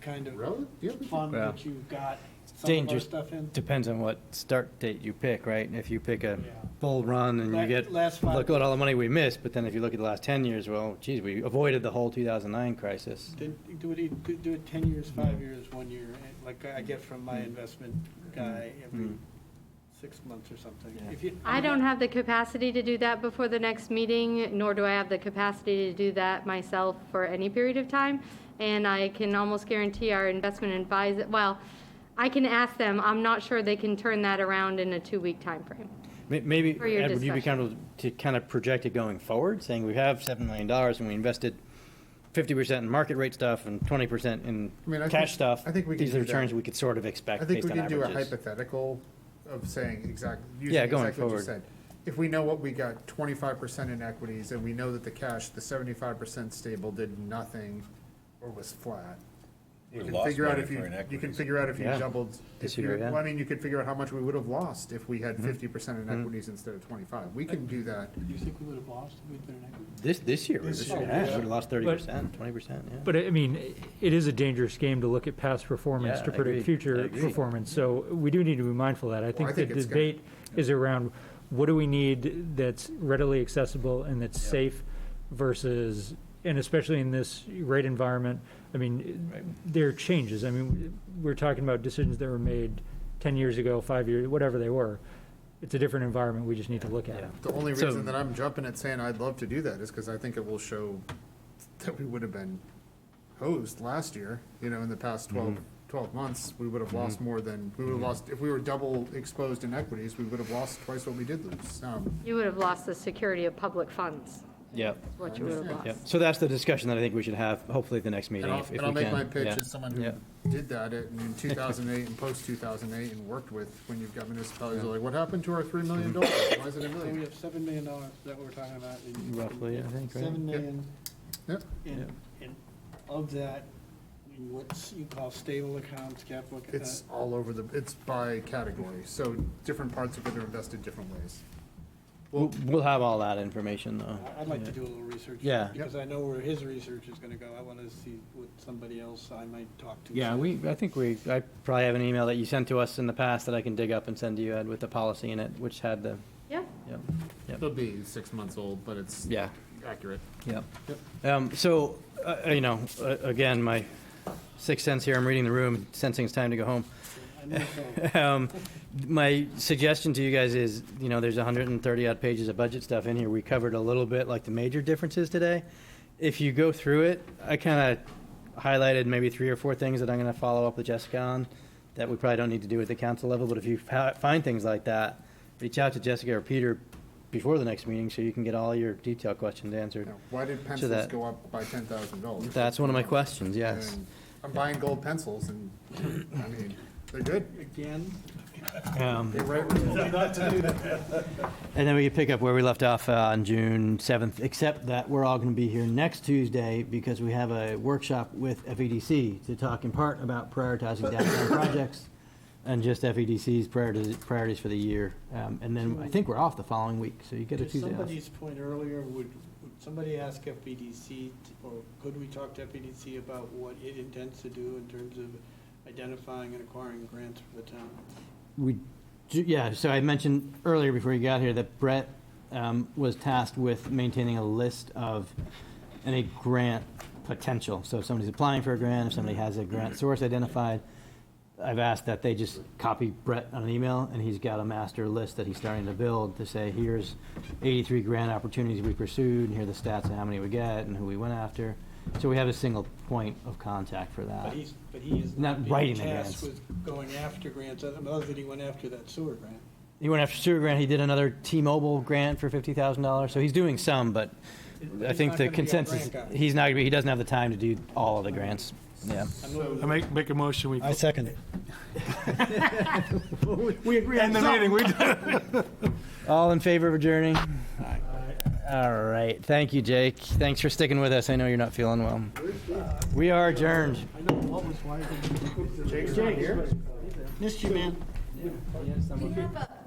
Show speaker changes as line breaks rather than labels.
kind of
Really? Yeah, we can-
fund
Well,
that you got some of our
Dangerous,
stuff in?
depends on what start date you pick, right? If you pick a
Yeah.
bull run and
La-
you get,
last five-
look at all the money we missed, but then if you look at the last 10 years, well, geez, we avoided the whole 2009 crisis.
Did- Do it, could do it ten years, five years, one year, and like I get from my investment guy every
Mm.
six months or something.
Yeah.
If you-
I don't have the capacity to do that before the next meeting, nor do I have the capacity to do that myself for any period of time. And I can almost guarantee our investment advisor, well, I can ask them, I'm not sure they can turn that around in a two-week timeframe.
May- Maybe,
For your
Ed, would you be
discussion.
comfortable to kind of project it going forward, saying we have $7 million and we invested 50% in market rate stuff and 20% in
I mean, I
cash
think-
stuff?
I think we can
These are
do that.
returns we could sort of expect
I think
based
we
on
can do a
averages.
hypothetical of saying exactly,
Yeah,
using
going
exactly what you
forward.
said. If we know what we got twenty-five percent in equities and we know that the cash, the seventy-five percent stable did nothing or was flat.
We
You can
lost
figure out
money
if
for
you, you can
inequities.
figure out if you
Yeah.
doubled, if
This year,
you,
yeah. Mm-hmm.
well, I mean, you could figure out how much we would have lost if we had fifty percent in equities instead of twenty-five. We can do that.
You think we would have lost if we'd been in equity?
This, this year, we would
This year,
yeah.
have lost 30%, 20%, yeah.
But I mean, it is a dangerous game to look at past performance
Yeah,
to
I
predict
agree. I
future
agree.
performance. So we do need to be mindful of that. I
I
think the
think it's gonna-
debate is around what do we need that's readily accessible and that's safe versus, and especially in this rate environment, I mean, there are changes. I mean, we're talking about decisions that were made 10 years ago, five years, whatever they were. It's a different environment. We just need to look at it.
The only
So-
reason that I'm jumping at saying I'd love to do that is because I think it will show that we would have been hosed last year, you know, in the past 12,
Mm-hmm.
12 months, we would have lost more than, we would have lost, if we were double exposed in equities, we would have lost twice what we did lose. Um,
You would have lost the security of public funds,
Yep.
is what you would have
Yep,
lost.
so that's the discussion that I think we should have, hopefully at the next meeting.
And I'll,
if- if
and I'll
we
make
can.
my pitch
Yeah.
as someone
Yeah.
who did that at- in 2008 and post 2008 and worked with, when you've got municipalities, are like, what happened to our $3 million? Why
Mm-hmm.
is it a
Oh,
So we
million?
have seven million dollars that we're talking about. in-
Roughly, I think, right?
Seven million,
Yep.
and, and of that, in what you call stable accounts, uh, capital. accounts.
It's all over the, it's by category, so different parts of it are invested different ways.
We'll, we'll have all that information, though.
I- I'd like to do a little research.
Yeah.
Because I know where his research is gonna go. I wanna see what somebody else I might talk to.
Yeah, we, I think we, I probably have an email that you sent to us in the past that I can dig up and send to you, Ed, with the policy in it, which had the,
Yeah,
yep,
It'll be six months old, but it's
yeah,
accurate.
yep. Um, so, uh, you know, uh, again, my sixth sense here, I'm reading the room, sensing it's time to go home.
I know so.
Um, My suggestion to you guys is, you know, there's 130 odd pages of budget stuff in here. We covered a little bit, like the major differences today. If you go through it, I kind of highlighted maybe three or four things that I'm going to follow up with Jessica on that we probably don't need to do at the council level, but if you fa- find things like that, reach out to Jessica or Peter before the next meeting so you can get all your detailed questions answered.
Now, Why did pencils
that-
go up by ten thousand dollars?
That's one of my questions, yes.
I'm buying gold pencils and, I mean, they're good.
Again,
Um,
They write results.
And then we can pick up where we left off uh, on June 7th, except that we're all going to be here next Tuesday because we have a workshop with FEDC to talk in part about prioritizing downtown projects and just FEDC's priorities priorities for the year. Um, And then I think we're off the following week, so you get a
to
Tuesday off.
somebody's point earlier, would, would somebody ask FBDC, t- or could we talk to FBDC about what it intends to do in terms of identifying and acquiring grants for the town?
We, do- yeah, so I mentioned earlier before you got here that Brett um, was tasked with maintaining a list of any grant potential. So if somebody's applying for a grant, if somebody has a grant source identified, I've asked that they just copy Brett on an email, and he's got a master list that he's starting to build to say, here's 83 grant opportunities we pursued, and here are the stats and how many we get, and who we went after. So we have a single point of contact for that.
But he's, but he is
Not
not being
writing the
tasked
grants.
with going after grants, other other than he went after that sewer grant.
He went after sewer grant. He did another T-Mobile grant for fifty thousand dollars. So he's doing some, but I
He's
think
not
the
gonna be a
consensus,
grant guy.
he's not gonna be, he doesn't have the time to do all of the grants. Yeah.
I know-
I make, make a motion, we.
second it.
We agree on the meeting, we do.
All in favor of adjourning? All right. Thank you, Jake. Thanks for sticking with us. I know you're not feeling well. We are adjourned.
I know what was why.
Jake's not here?
Missed you, man.
We have a